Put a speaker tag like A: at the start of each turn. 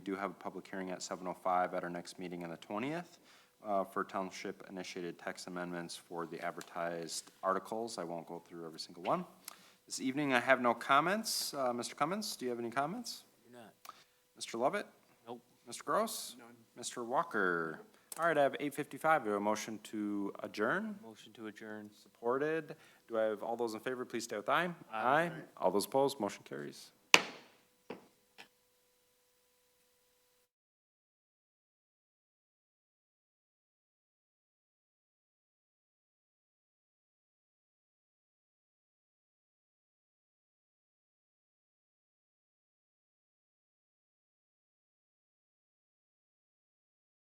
A: We do have a public hearing at 7:05 at our next meeting on the 20th uh, for township-initiated text amendments for the advertised articles. I won't go through every single one. This evening, I have no comments. Uh, Mr. Cummins, do you have any comments?
B: You're not.
A: Mr. Lovett?
B: Nope.
A: Mr. Gross? None. Mr. Walker? All right, I have 8:55. Do I have a motion to adjourn?
B: Motion to adjourn.
A: Supported. Do I have all those in favor, please stay with aye?
B: Aye.
A: All those opposed, motion carries.